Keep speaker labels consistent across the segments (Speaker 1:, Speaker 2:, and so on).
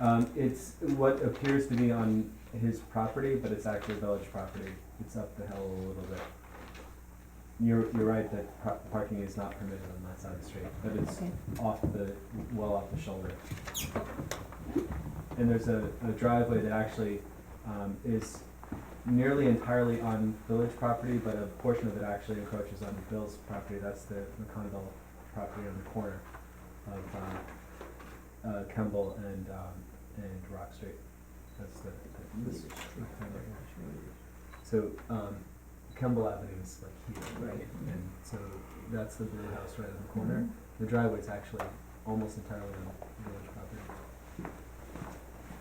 Speaker 1: Um, it's what appears to be on his property, but it's actually village property. It's up the hill a little bit. You're, you're right that par- parking is not permitted on that side of the street, but it's
Speaker 2: Okay.
Speaker 1: off the, well off the shoulder. And there's a, a driveway that actually, um, is nearly entirely on village property, but a portion of it actually encroaches on Bill's property. That's the McConville property on the corner of, uh, uh, Kemble and, um, and Rock Street. That's the, the, this street kind of area. So, um, Kemble Avenue is like here, right? And so that's the blue house right in the corner.
Speaker 3: Mm-hmm.
Speaker 1: The driveway's actually almost entirely on village property.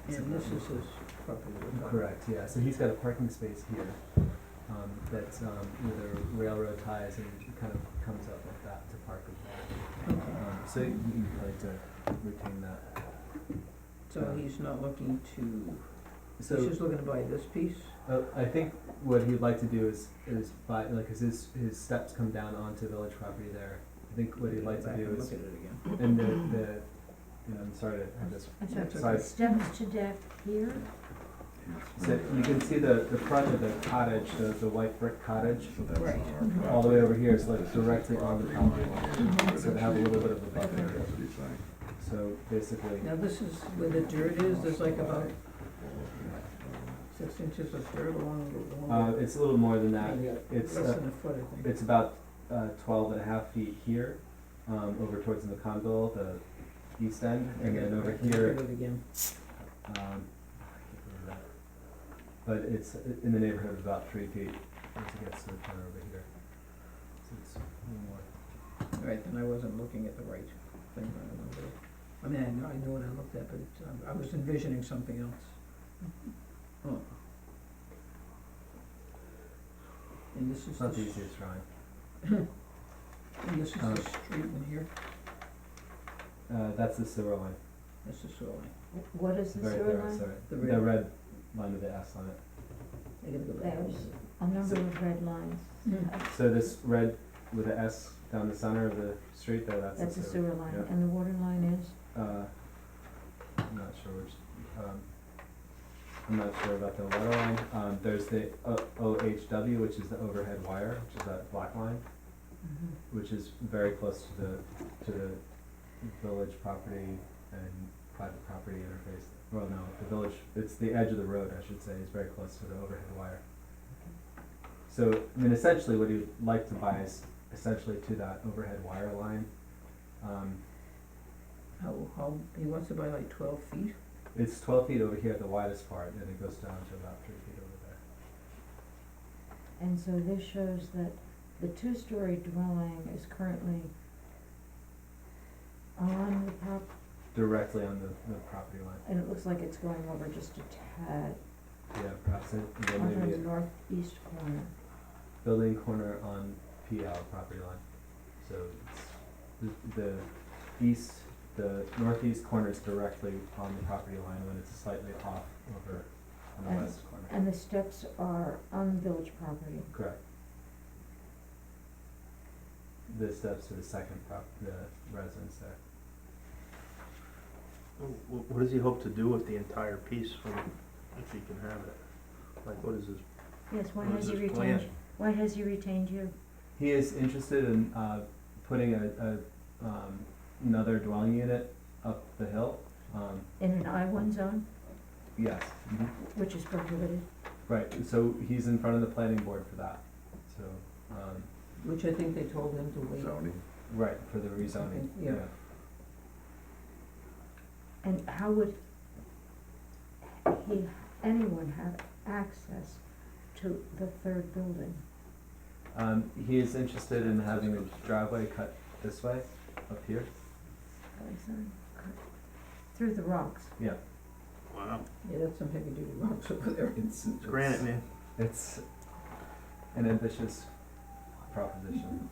Speaker 3: And this is his property. right?
Speaker 1: Correct, yeah, so he's got a parking space here, um, that's, um, where the railroad ties and kind of comes up like that to park as well.
Speaker 3: Okay,
Speaker 1: Um, so you would like to retain that.
Speaker 3: so he's not looking to,
Speaker 1: So.
Speaker 3: he's just looking to buy this piece?
Speaker 1: Uh, I think what he'd like to do is, is buy, like, as his, his steps come down onto village property there, I think what he'd
Speaker 3: Go
Speaker 1: like to
Speaker 3: back
Speaker 1: do
Speaker 3: and
Speaker 1: is,
Speaker 3: Look at it again.
Speaker 1: and the, the, and I'm sorry to have this,
Speaker 2: I'm sorry,
Speaker 3: That's
Speaker 1: Sorry.
Speaker 2: the steps to deck here,
Speaker 1: so you can see the, the front of the cottage, the, the white brick cottage,
Speaker 3: Right.
Speaker 1: all the way over here is like directly on the property line, so they have a little bit of a buffer area. So basically,
Speaker 3: Now, this is where the dirt is, there's like about six inches of dirt along the
Speaker 1: uh,
Speaker 3: along
Speaker 1: it's a little more than
Speaker 3: the
Speaker 1: that,
Speaker 3: maybe
Speaker 1: it's,
Speaker 3: Less
Speaker 1: uh,
Speaker 3: than a foot, I think.
Speaker 1: It's about uh, 12 and a half feet here, um, over towards the McConville, the east end, and then over here,
Speaker 3: Look at it again.
Speaker 1: um, I can't remember that. but it's in the neighborhood of about three feet once it gets to the corner over here. So it's a little more.
Speaker 3: All right, then I wasn't looking at the right thing when I looked at it. I mean, I know, I know what I looked at, but it's, um, I was envisioning something else.
Speaker 1: Hmm.
Speaker 3: Oh. And this is
Speaker 1: It's
Speaker 3: the,
Speaker 1: not the
Speaker 3: s-
Speaker 1: easiest drawing.
Speaker 3: and this is
Speaker 1: uh,
Speaker 3: the street in here,
Speaker 1: Uh, that's the sewer line,
Speaker 3: that's the sewer line.
Speaker 2: what is
Speaker 1: the
Speaker 2: the
Speaker 1: very,
Speaker 2: sewer
Speaker 1: very
Speaker 2: line?
Speaker 1: sewer.
Speaker 3: The
Speaker 1: The
Speaker 3: red.
Speaker 1: red line with the S on it.
Speaker 3: I gotta go back.
Speaker 2: There's A number
Speaker 1: So-
Speaker 2: of red lines,
Speaker 3: Mm.
Speaker 2: Uh,
Speaker 1: So this red with the S down the center of the street there, that's the
Speaker 2: that's
Speaker 1: sewer.
Speaker 2: a sewer line,
Speaker 1: yeah.
Speaker 2: and the water line is,
Speaker 1: Uh, I'm not sure which, um, I'm not sure about the water line. Um, there's the O- OHW, which is the overhead wire, which is that black line,
Speaker 3: Mm-hmm.
Speaker 1: which is very close to the, to the village property and private property interface. Well, no, the village, it's the edge of the road, I should say, is very close to the overhead wire. So, I mean, essentially, what you'd like to buy is essentially to that overhead wire line. Um,
Speaker 3: How, how, he wants to buy like twelve feet?
Speaker 1: It's twelve feet over here at the widest part, and it goes down to about three feet over there.
Speaker 2: and so this shows that the two-story dwelling is currently on the prop,
Speaker 1: Directly on the, the property line,
Speaker 2: and it looks like it's going over just a tad,
Speaker 1: yeah, perhaps, it- and then
Speaker 2: onto
Speaker 1: maybe
Speaker 2: the
Speaker 1: a
Speaker 2: northeast corner.
Speaker 1: building corner on PL property line. So it's, the, the east, the northeast corner is directly on the property line, when it's slightly off over on
Speaker 2: And-
Speaker 1: the west corner,
Speaker 2: And the steps are on village property.
Speaker 1: correct? The steps to the second prop, the residence there.
Speaker 4: Wh- What does he hope to do with the entire piece from, if he can have it? Like, what is his,
Speaker 2: Yes, why
Speaker 4: what
Speaker 2: has
Speaker 4: is
Speaker 2: he
Speaker 4: his
Speaker 2: retained,
Speaker 4: plan?
Speaker 2: why has he retained you?
Speaker 1: He is interested in uh, putting a, a um, another dwelling unit up the hill. Um,
Speaker 2: In an I one zone,
Speaker 1: yes, Mm-hmm.
Speaker 2: which is prohibited.
Speaker 1: right. So he's in front of the planning board for that. So um,
Speaker 3: Which I think they told him to wait.
Speaker 5: Zoning,
Speaker 1: right for the rezoning.
Speaker 3: Yeah.
Speaker 2: And how would he, anyone have access to the third building?
Speaker 1: Um, he is interested in having a driveway cut this way up here.
Speaker 2: That I said, cut Through the rocks.
Speaker 4: wow,
Speaker 3: Yeah, that's some heavy duty rocks over there.
Speaker 1: It's,
Speaker 4: it's granite, man.
Speaker 1: It's an ambitious proposition,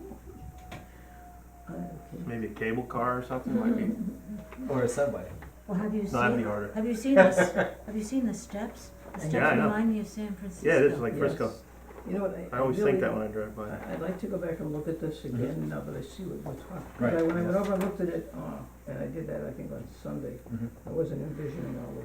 Speaker 3: Uh, okay.
Speaker 4: Maybe a cable car or something, like,
Speaker 3: Mm-hmm.
Speaker 4: he-
Speaker 1: or a subway.
Speaker 2: Well, have you
Speaker 4: no, that'd be
Speaker 2: seen,
Speaker 4: harder.
Speaker 2: have you seen this, have you seen the steps? The
Speaker 3: Yeah,
Speaker 2: steps
Speaker 4: I know.
Speaker 2: remind me of San Francisco.
Speaker 4: Yeah, it is like Frisco.
Speaker 3: Yes. You know what, I.
Speaker 4: I always think
Speaker 3: really-
Speaker 4: that when I Mm-hmm. drive by.
Speaker 3: I- I'd like to go back and look at this again, now that I see what, what's on. 'Cause
Speaker 1: Right,
Speaker 3: I- When I
Speaker 1: yeah.
Speaker 3: went over and looked at it, uh, and I did that, I think, on Sunday,
Speaker 1: Mhm.
Speaker 3: I wasn't envisioning all of